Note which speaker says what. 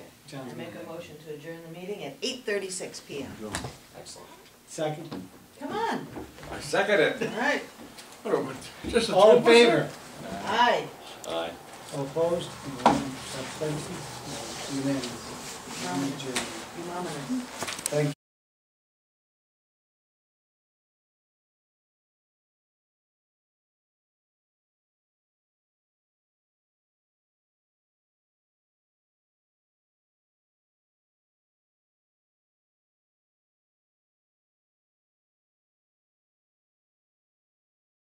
Speaker 1: John's
Speaker 2: I make a
Speaker 1: gonna-
Speaker 2: motion to adjourn the meeting at eight thirty-six P M.
Speaker 3: Excellent.
Speaker 1: Second,
Speaker 2: Come on,
Speaker 3: I second
Speaker 2: all
Speaker 3: it.
Speaker 2: right,
Speaker 3: What a- Just a
Speaker 1: all in favor,
Speaker 3: 2%.
Speaker 2: aye,
Speaker 4: Aye.
Speaker 1: All opposed, and one abstention, unanimous. Meeting adjourned.
Speaker 2: you mama.